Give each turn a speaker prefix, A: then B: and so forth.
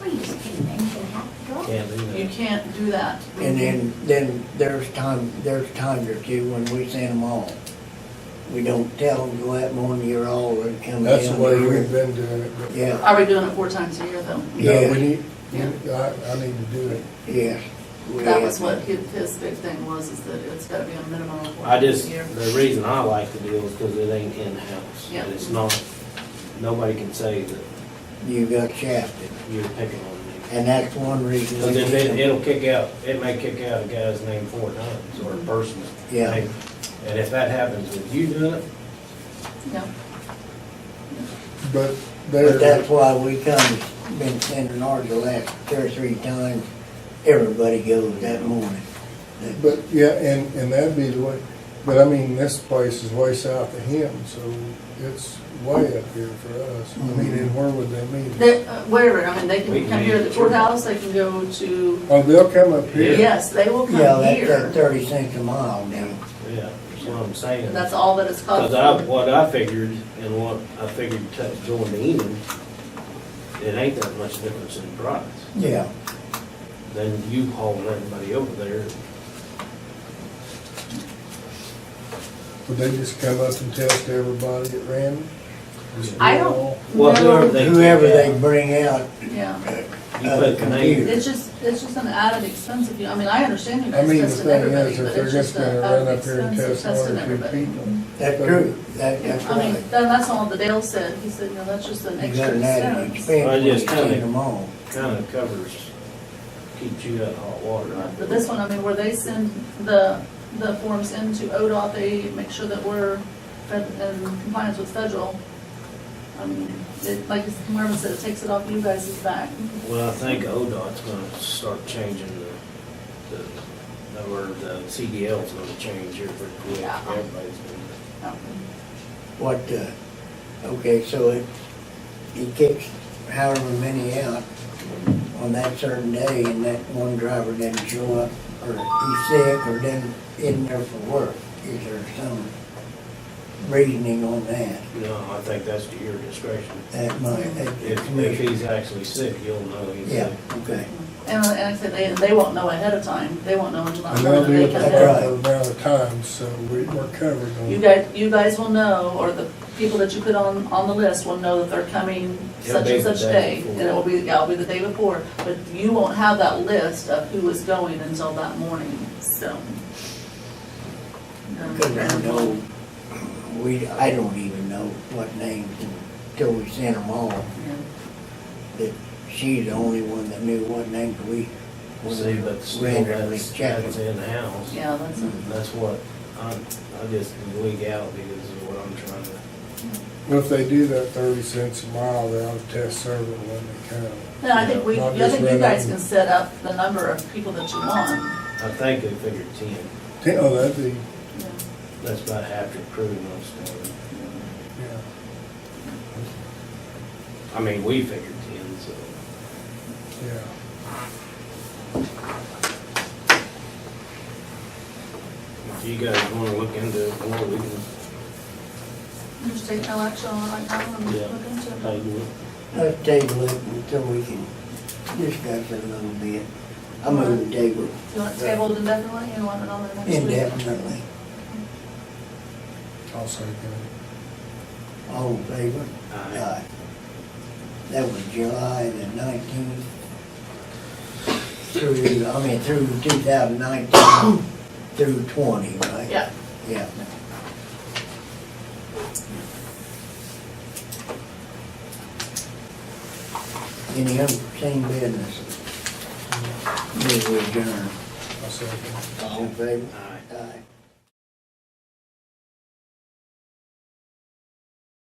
A: can't do
B: You
A: that.
B: can't do that.
C: And then, then there's time, there's times or two when we send them all. We don't tell them, go out mowing your all, or come down.
A: That's the way
C: here."
A: we've been doing it, but.
C: Yeah,
B: Are we doing it four times a year though?
A: No,
C: Yeah.
A: we need, we- I, I need to do it.
C: yes. we
B: That
C: have
B: was what
C: to.
B: his, his big thing was, is that it's gotta be a minimum of four
D: I
B: times
D: just,
B: a year.
D: the reason I like the deal is because it ain't in-house.
B: Yeah.
D: And it's not, nobody can say that
C: You got shafted,
D: you're picking on me.
C: and that's one reason. we
D: Because then it-
C: need 'em.
D: it'll kick out, it may kick out a guy's name four times
B: Mm-hmm.
D: or a person's
C: Yeah.
D: name. And if that happens with you doing it,
B: Yeah.
A: But
C: But
A: there,
C: that's why we come, been sending ours the last two or three times, everybody goes that morning.
A: but, yeah, and, and that'd be the way, but I mean, this place is way south of him, so it's way up here for us. I mean, and where would they meet?
B: They, uh, wherever, I mean, they
D: We
B: can
D: can
B: come here to the
D: manage it.
B: courthouse, they can go to,
A: Oh, they'll come up here?
B: yes, they will
C: Yeah,
B: come
C: that's that
B: here.
C: thirty cents a mile now.
D: yeah, that's what I'm saying.
B: That's all that it's
D: Because I,
B: costing.
D: what I figured and what I figured t- going to Enid, it ain't that much difference in price.
C: Yeah,
D: Then you hauling everybody over there.
A: Would they just come up and test everybody at random? Just
B: I
A: do it
B: don't-
A: all?
D: Well,
B: No.
D: whoever they. kick
C: whoever they
D: out,
C: bring out,
B: Yeah.
D: You put the name.
B: It's just, it's just an added expense if you, I mean, I understand you
A: I
B: guys
A: mean, the
B: tested
A: thing
B: everybody,
A: is,
B: but
A: if they're
B: it's
A: just
B: just
A: gonna
B: an
A: run
B: added
A: up here and
B: expense of
A: test one
B: testing
A: or two
B: everybody.
A: people.
C: that's true, that, that's
B: I mean,
C: right.
B: then that's all that Dale said, he said, you know, that's just an
C: You
B: extra
C: got an added
B: expense.
C: expense
D: I
C: when you
D: just kinda-
C: send them all.
D: kind of covers, keeps you out of hot water. I
B: But this one, I mean, where they send the, the forms into ODOT, they make sure that we're fed- in compliance with federal. I mean, it, like Marvin said, it takes it off you guys' back.
D: feel. Well, I think ODOT's gonna start changing the, the, or the CDL's gonna change here pretty quick.
B: Yeah.
D: Everybody's gonna,
C: What, uh, okay, so it, he kicks however many out on that certain day and that one driver doesn't show up, or he's sick, or doesn't, isn't there for work, is there some reasoning on that?
D: no, I think that's to your discretion.
C: That might, that
D: If,
C: the
D: if
C: commission,
D: he's actually sick, you'll know. he's
C: yeah,
D: sick.
C: okay,
B: And, and like I said, they, they won't know ahead of time, they won't know until
A: And
B: that
A: they'll
B: morning
A: do
B: they
A: it
B: come
A: for a
C: That's
B: in.
C: right.
A: proper amount of time, so we- we're covered on.
B: You guys, you guys will know, or the people that you put on, on the list will know that they're coming
D: It'll
B: such
D: be
B: and
D: the
B: such
D: day
B: day.
D: before.
B: And it will be, yeah, it'll be the day before, but you won't have that list of who is going until that morning, so. Um,
C: because I know, we, I don't even know what names until we sent them all,
B: yeah.
C: that she's the only one that knew what names we.
D: See, but still,
C: randomly
D: that's,
C: checked.
D: that's in-house.
B: Yeah, that's, a-
D: That's what, I, I just, legality is what I'm trying to.
A: Well, if they do that thirty cents a mile, they ought to test several when they come.
B: no, I think we,
A: Not
B: I
A: just
B: think you
A: run
B: guys
A: up
B: can
A: and-
B: set up the number of people that you want.
D: I think they figured ten,
A: Ten- Oh, that'd be,
B: Yeah.
D: that's about half your crew most of them.
A: yeah,
D: I mean, we figured ten, so.
A: yeah.
D: If you guys wanna look into it more, we can
B: You Just take no action on it right now and
D: Yeah.
B: look into it.
D: table it.
C: Let's table it until we can discuss it a little bit. I'm gonna table it
B: You want it tabled indefinitely, you want it on the next week?
C: indefinitely.
A: I'll say that.
C: All in favor?
D: Aye.
C: That was July the nineteenth through, I mean, through two thousand nineteen, through twenty, right?
B: Yeah.
C: Yeah. Any unforeseen business? Move adjourned.
A: I'll say that.
C: All in favor?
D: Aye.
C: Aye.